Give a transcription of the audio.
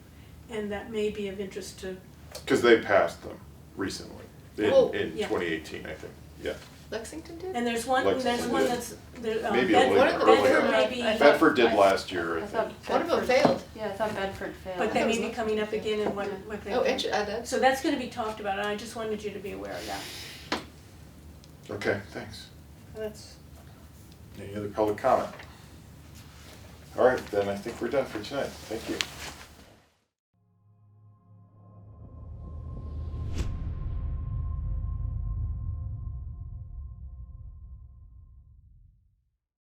and that may be of interest to, Because they passed them recently, in, Oh, in yeah. twenty eighteen, I think, yeah. Lexington did? and there's one, Like- there's one that's, there, um, Maybe a Bedford, Bedford little Bedford- earlier. Bedford- may be- I thought- Bedford did I- last year, I I think. thought One of them Bedford- failed. Yeah, I thought Bedford failed. but they that may was be coming up again in what, Yeah. what they. Oh, inter- uh, that's, So that's gonna be talked about, and I just wanted you to be aware of that. Okay, thanks. That's. Any other public comment? All right, then I think we're done for tonight, thank you.